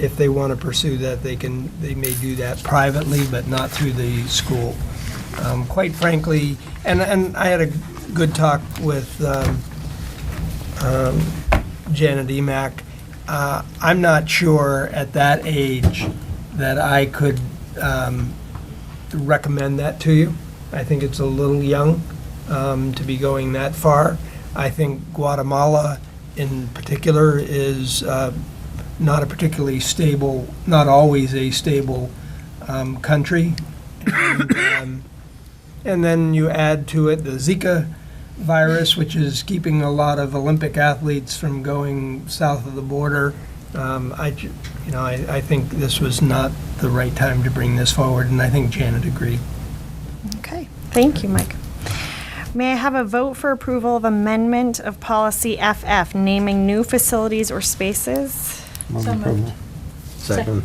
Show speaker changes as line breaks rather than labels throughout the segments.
if they want to pursue that, they can, they may do that privately, but not through the school. Um, Quite frankly, and, and I had a good talk with um, um, Janet Emack. Uh, I'm not sure at that age that I could um, recommend that to you. I think it's a little young um, to be going that far. I think Guatemala in particular is uh, not a particularly stable, not always a stable um, country. And, um, And then you add to it the Zika virus, which is keeping a lot of Olympic athletes from going south of the border. Um, I, ju- you know, I, I think this was not the right time to bring this forward, and I think Janet agreed.
Okay, thank you, Mike. May I have a vote for approval of amendment of policy FF, naming new facilities or spaces?
So moved.
Second.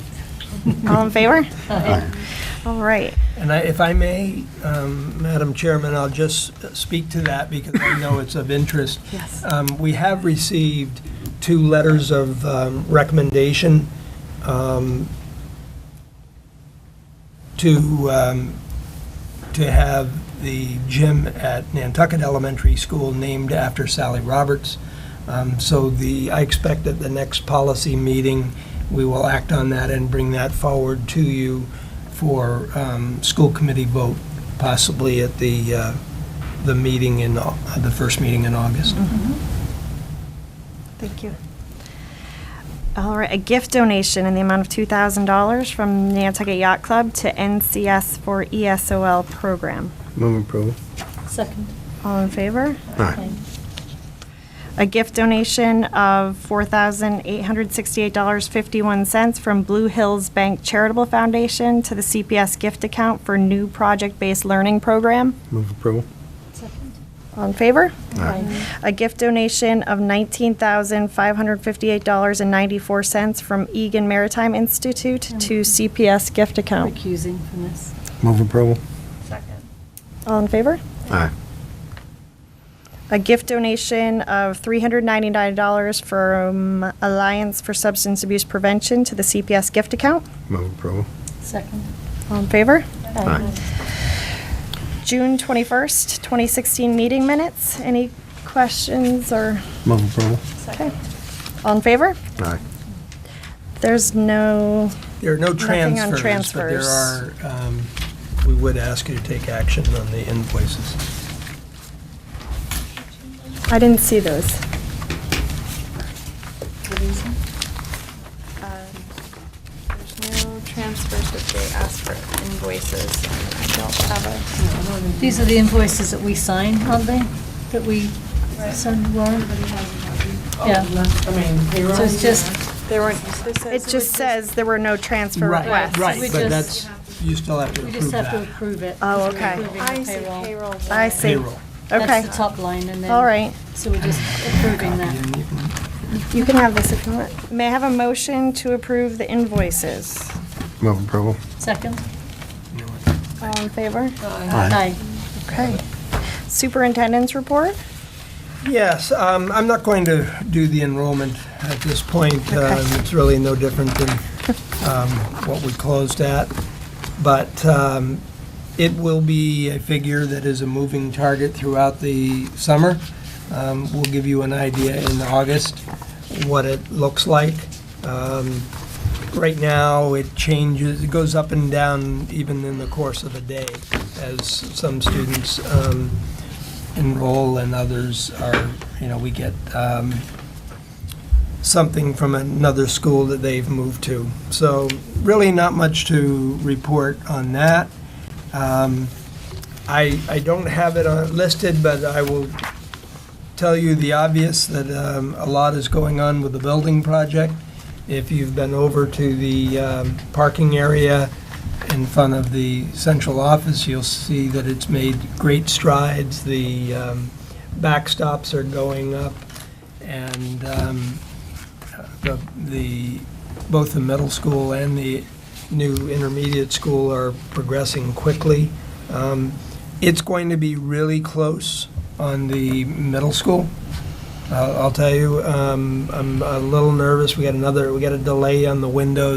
All in favor?
Aye.
All right.
And I, if I may, um, Madam Chairman, I'll just speak to that because I know it's of interest.
Yes.
Um, We have received two letters of um, recommendation um, to, um, to have the gym at Nantucket Elementary School named after Sally Roberts. Um, So the, I expect at the next policy meeting, we will act on that and bring that forward to you for um, school committee vote, possibly at the, uh, the meeting in, Au- the first meeting in August.
Mm-hmm. Thank you. All right, a gift donation in the amount of $2,000 from Nantucket Yacht Club to NCS for E ESOL program.
Move approval.
Second.
All in favor?
Aye.
A gift donation of $4,868.51 from Blue Hills Bank Charitable Foundation to the CPS gift account for new project-based learning program.
Move approval.
Second.
All in favor?
Aye.
A gift donation of $19,558.94 from Egan Maritime Institute to CPS gift account.
Recusing from this.
Move approval.
All in favor?
Aye.
A gift donation of $399 from Alliance for Substance Abuse Prevention to the CPS gift account.
Move approval.
Second.
All in favor?
Aye.
June 21st, 2016 meeting minutes. Any questions or,
Move approval.
okay. All in favor?
Aye.
There's no,
There are no
Nothing on
transfers, but there are,
transfers.
um, we would ask you to take action on the invoices.
I didn't see those.
Recusing.
There's no transfers if they ask for invoices. I don't have
These are the invoices that we sign, aren't they? That we send Lauren? Yeah.
Oh, I mean, payroll.
So it's just,
a, there weren't, this says.
It just says there were no transfer requests.
Right,
We
but
just-
that's, you still have to
we
approve
just have to
that.
approve it.
Oh,
We're
okay.
approving the
I see payroll.
I see.
Payroll.
Okay,
That's the top line and then.
all right.
So we're just approving that.
And you can-
You can have this if you want. May I have a motion to approve the invoices?
Move approval.
Second?
you know what,
All in favor?
Aye.
Okay. Superintendent's report?
Yes, um, I'm not going to do the enrollment at this point. Um, It's really no different than um, what we closed at. But um, it will be a figure that is a moving target throughout the summer. Um, We'll give you an idea in August what it looks like. Um, Right now, it changes, it goes up and down even in the course of a day as some students um, enroll and others are, you know, we get um, something from another school that they've moved to. So really not much to report on that. Um, I, I don't have it on- listed, but I will tell you the obvious, that um, a lot is going on with the building project. If you've been over to the um, parking area in front of the central office, you'll see that it's made great strides. The um, backstops are going up, and um, the, the- both the middle school and the new intermediate school are progressing quickly. Um, It's going to be really close on the middle school. I'll I'll tell you, um, I'm a little nervous. We got another, we got a delay on the windows.